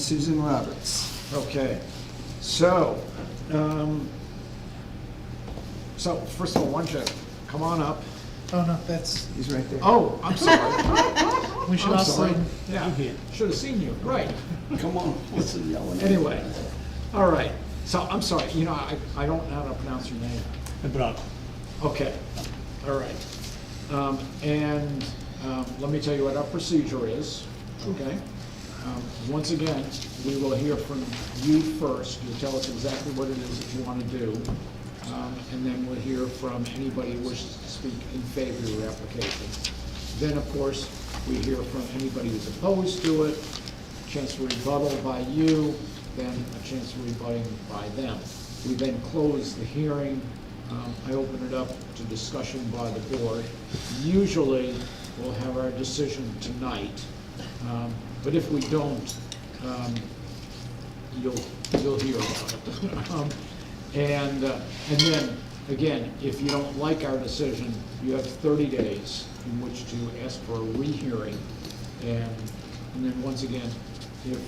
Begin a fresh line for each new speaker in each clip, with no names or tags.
Susan Roberts. Okay, so, um, so first of all, why don't you come on up?
Oh, no, that's,
He's right there.
Oh, I'm sorry.
we should
I'm
also,
sorry. Yeah, should have seen you, right.
Come on, what's the yelling?
Anyway, all right. So I'm sorry, you know, I, I don't know how to pronounce your name.
uh,
Okay, all right. Um, And um, let me tell you what our procedure is, okay? Um, Once again, we will hear from you first. You tell us exactly what it is that you want to do, um, and then we'll hear from anybody who wishes to speak in favor of your application. Then, of course, we hear from anybody who's opposed to it, chance for rebuttal by you, then a chance for rebutting by them. We then close the hearing. Um, I open it up to discussion by the board. Usually, we'll have our decision tonight, Um, but if we don't, um, you'll, you'll hear about it. Um, And, uh, and then, again, if you don't like our decision, you have thirty days in which to ask for a rehearing. And, and then once again, if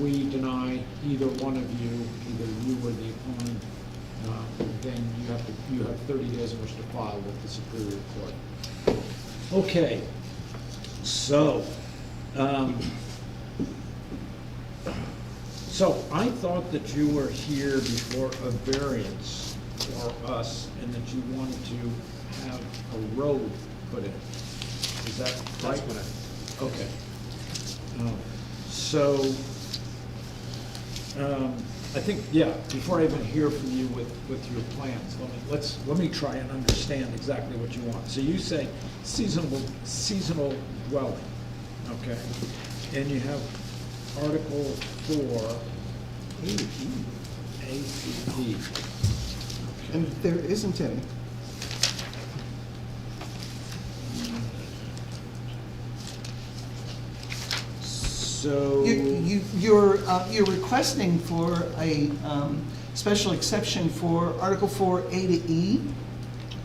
we deny either one of you, either you or the opponent, uh, then you have to, you have thirty days in which to file with the Superior Court. Okay, so, um, so I thought that you were here before a variance for us and that you wanted to have a road put in. Is that right? Okay. Um, So, um, I think, yeah, before I even hear from you with, with your plans, let me, let's, let me try and understand exactly what you want. So you say seasonal, seasonal dwelling, okay? And you have Article four, A, E, A, C, D.
And there isn't any.
So.
You, you- you're, uh, you're requesting for a um, special exception for Article 4 A to E.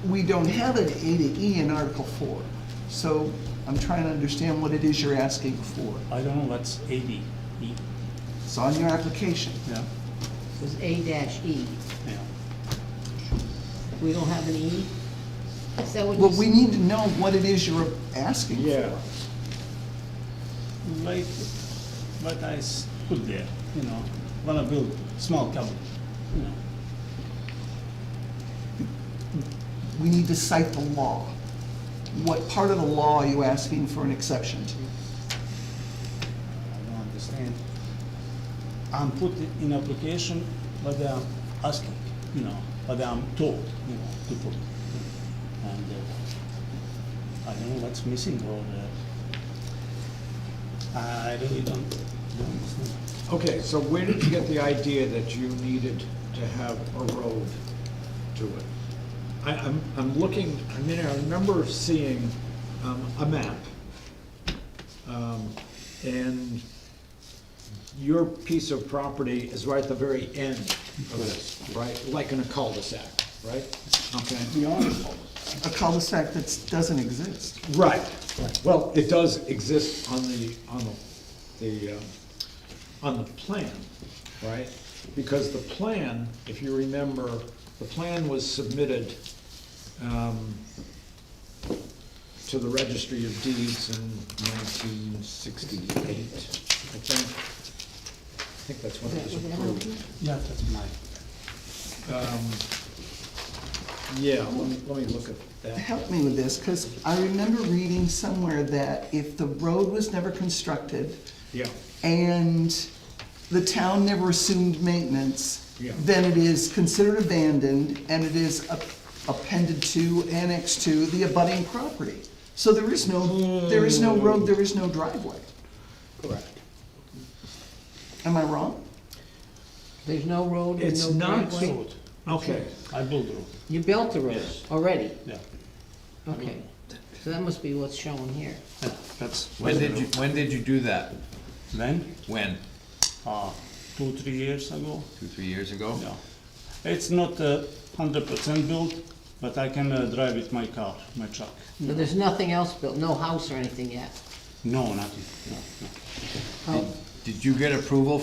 We don't have an A to E in Article 4, so I'm trying to understand what it is you're asking for.
I don't know, that's eighty, E,
It's on your application.
yeah,
was A dash E.
yeah.
We don't have an E? Is that what you
Well, we
said?
need to know what it is you're asking for.
Yeah,
Like, but I s- put there, you know, wanna build small cabin, you know.
We need to cite the law. What part of the law are you asking for an exception to?
I don't understand. I'm put in application, but I'm asking, you know, but I'm told, you know, to put. And uh, I don't know what's missing or, uh, I really don't, don't understand.
okay, so where did you get the idea that you needed to have a road to it? I, I'm, I'm looking, I mean, I remember seeing, um, a map. Um, and your piece of property is right at the very end of this, right? Like in a cul-de-sac, right? Okay.
A cul-de-sac that doesn't exist.
Right, well, it does exist on the, on the, the, um, on the plan, right? Because the plan, if you remember, the plan was submitted um, to the Registry of Deeds in nineteen sixty-eight, I think. I think that's when it was approved.
Yeah, that's my,
Um, Yeah, let me, let me look at that.
Help me with this, because I remember reading somewhere that if the road was never constructed
Yeah,
and the town never assumed maintenance,
Yeah.
then it is considered abandoned and it is ap- appended to, annexed to the abutting property. So there is no, there is no road, there is no driveway.
correct.
Am I wrong?
There's no road and
It's
no
not,
driveway?
okay.
I build road,
You built the road
Yes.
already?
yeah.
Okay. So that must be what's shown here.
Yeah, That's.
When did you, when did you do that?
When?
When?
Uh, two, three years ago?
Two, three years ago?
Yeah. It's not uh hundred percent built, but I can uh, drive with my car, my truck.
But there's nothing else built, no house or anything yet?
No, nothing, no, no.
Oh.
Did you get approval